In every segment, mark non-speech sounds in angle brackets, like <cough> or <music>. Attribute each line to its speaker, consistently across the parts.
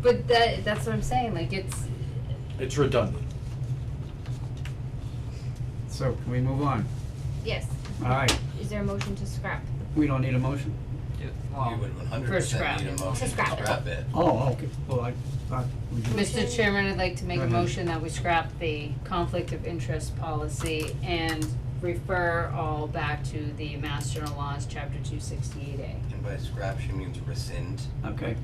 Speaker 1: But that, that's what I'm saying, like, it's,
Speaker 2: It's redundant.
Speaker 3: So can we move on?
Speaker 1: yes,
Speaker 3: All right,
Speaker 1: is there a motion to scrap?
Speaker 3: we don't need a motion.
Speaker 4: You would one hundred
Speaker 1: First
Speaker 4: percent
Speaker 1: scrap.
Speaker 4: need a motion to
Speaker 1: First scrap.
Speaker 4: scrap it.
Speaker 3: Oh, okay, well, I thought we did.
Speaker 1: Mr. Chairman, I'd like to make
Speaker 3: Go
Speaker 1: a
Speaker 3: ahead.
Speaker 1: motion that we scrap the conflict of interest policy and refer all back to the Mass General Laws, Chapter two sixty-eight A.
Speaker 4: And by scrap, she means rescind.
Speaker 3: Okay,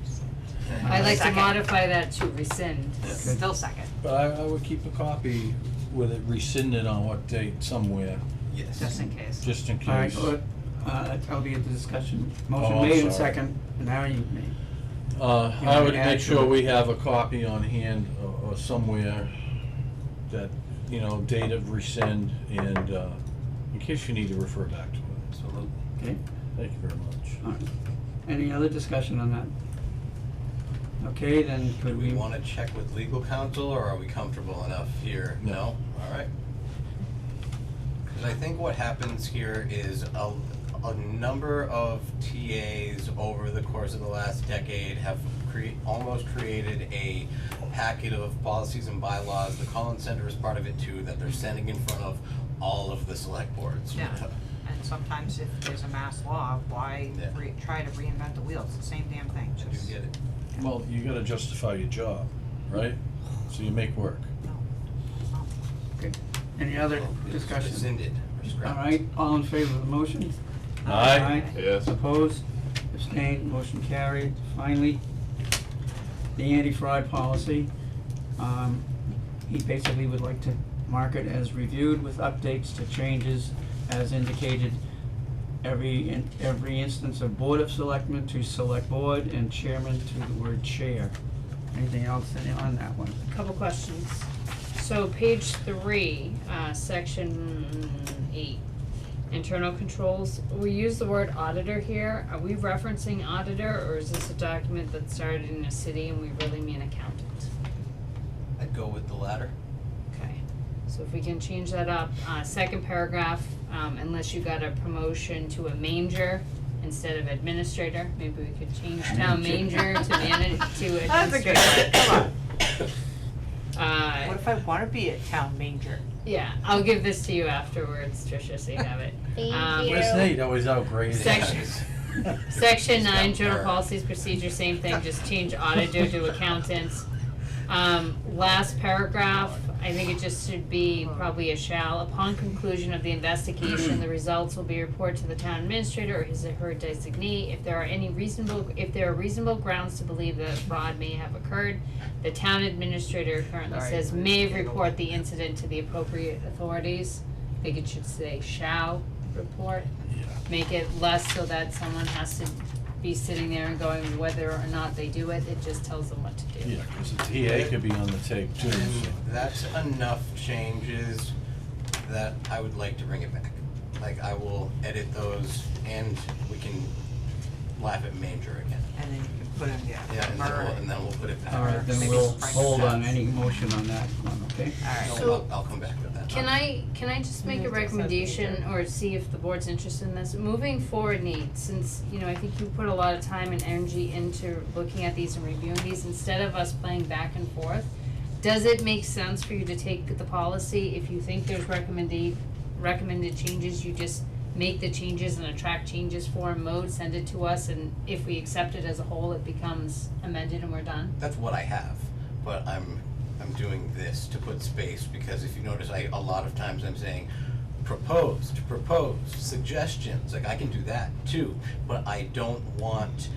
Speaker 1: I'd like to
Speaker 5: Second.
Speaker 1: modify that to rescind.
Speaker 5: Still second.
Speaker 2: But I, I would keep a copy with it rescinded on what date somewhere,
Speaker 4: Yes.
Speaker 5: Just in case.
Speaker 2: just in
Speaker 3: all right,
Speaker 2: case.
Speaker 3: well, uh, that'll be at the discussion.
Speaker 2: Oh,
Speaker 3: Motion
Speaker 2: I'm
Speaker 3: made and
Speaker 2: sorry.
Speaker 3: second, now you made.
Speaker 2: Uh,
Speaker 3: You
Speaker 2: I
Speaker 3: wanna
Speaker 2: would
Speaker 3: add
Speaker 2: make
Speaker 3: to
Speaker 2: sure
Speaker 3: it?
Speaker 2: we have a copy on hand or- or somewhere that, you know, date of rescind and, uh, in case you need to refer back to it.
Speaker 4: Absolutely.
Speaker 3: Okay,
Speaker 2: Thank you very much.
Speaker 3: all right. Any other discussion on that? Okay, then
Speaker 4: Do
Speaker 3: could
Speaker 4: we
Speaker 3: we,
Speaker 4: wanna check with legal counsel, or are we comfortable enough here?
Speaker 2: No.
Speaker 4: No? Alright. Cause I think what happens here is a, a number of TAs over the course of the last decade have cre- almost created a packet of policies and bylaws, the Collins Center is part of it too, that they're sending in front of all of the select boards.
Speaker 5: Yeah. And sometimes if there's a mass law, why
Speaker 4: Yeah.
Speaker 5: re- try to reinvent the wheel? It's the same damn thing,
Speaker 4: I <laughs> do
Speaker 5: just.
Speaker 4: get it.
Speaker 2: Well, you gotta justify your job, right? So you make work.
Speaker 3: any other
Speaker 4: Well, it's
Speaker 3: discussion?
Speaker 4: Rescinded or
Speaker 3: All
Speaker 4: scrapped.
Speaker 3: right, all in favor of the motion?
Speaker 2: Aye.
Speaker 6: Yes.
Speaker 3: Opposed, abstained, motion carried. Finally, the anti-fraud policy. Um, he basically would like to mark it as reviewed with updates to changes as indicated. Every, in every instance of Board of Selectmen to Select Board and Chairman to the word Chair. Anything else in- on that one?
Speaker 1: Couple questions. So page three, uh, section eight, internal controls, we use the word auditor here, are we referencing auditor, or is this a document that started in a city and we really mean accountant?
Speaker 4: I'd go with the latter.
Speaker 1: Okay, so if we can change that up, uh, second paragraph, um, unless you got a promotion to a manger instead of administrator, maybe we could change town
Speaker 3: Manger.
Speaker 1: manger to manage, to administrator.
Speaker 5: <laughs> That's a good one, come on.
Speaker 1: Uh,
Speaker 5: What if I wanna be a town manger?
Speaker 1: Yeah, I'll give this to you afterwards, Tricia, so you have it. Um,
Speaker 7: Thank you.
Speaker 2: Where's Nate? Always outgrading. <laughs>
Speaker 3: <laughs>
Speaker 1: Section-
Speaker 4: She's
Speaker 1: Section
Speaker 4: got
Speaker 1: nine, general
Speaker 4: her.
Speaker 1: policies, procedure, same thing, just change auditor to accountants. Um, last paragraph, I think it just should be probably a shall. Upon conclusion of the investigation, the results will be reported to the town administrator or his or her designee. If there are any reasonable, if there are reasonable grounds to believe that fraud may have occurred, the town administrator currently says may report the incident to the appropriate authorities. I think it should say shall report. Make it less so that someone has to be sitting there and going whether or not they do it, it just tells them what to do.
Speaker 2: Yeah, 'cause the TA could be on the tape too, so.
Speaker 4: That's enough changes that I would like to bring it back. Like, I will edit those and we can laugh at manger again.
Speaker 5: And then you can put in, yeah,
Speaker 4: Yeah, and then we'll,
Speaker 5: murder.
Speaker 4: and then we'll put it back.
Speaker 3: All right, then
Speaker 5: Maybe
Speaker 3: we'll
Speaker 5: strike
Speaker 3: hold on
Speaker 5: that.
Speaker 3: any motion on that one, okay?
Speaker 5: Alright.
Speaker 4: No, I'll, I'll come back with that.
Speaker 1: Can I, can I just make a
Speaker 5: Mhm.
Speaker 1: recommendation or see if the board's interested in this? Moving forward, Nate, since, you know, I think you put a lot of time and energy into looking at these and reviewing these, instead of us playing back and forth, does it make sense for you to take the policy, if you think there's recommended, recommended changes, you just make the changes and attract changes form mode, send it to us, and if we accept it as a whole, it becomes amended and we're done?
Speaker 4: That's what I have, but I'm, I'm doing this to put space, because if you notice, I, a lot of times I'm saying proposed, proposed, suggestions, like I can do that too, but I don't want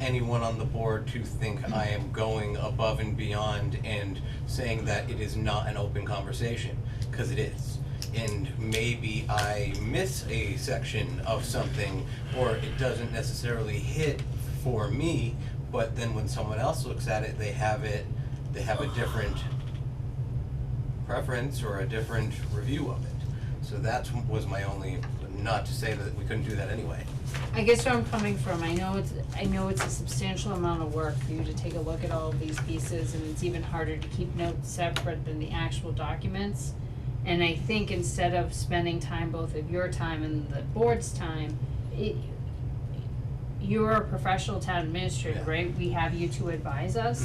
Speaker 4: anyone on the board to think I am going above and beyond and saying that it is not an open conversation, cause it is. And maybe I miss a section of something, or it doesn't necessarily hit for me, but then when someone else looks at it, they have it, they have a different preference or a different review of it. So that was my only, not to say that we couldn't do that anyway.
Speaker 1: I guess where I'm coming from, I know it's, I know it's a substantial amount of work for you to take a look at all of these pieces, and it's even harder to keep notes separate than the actual documents. And I think instead of spending time, both of your time and the board's time, it, you're a professional town administrator,
Speaker 4: Yeah.
Speaker 1: right? We have you to advise us.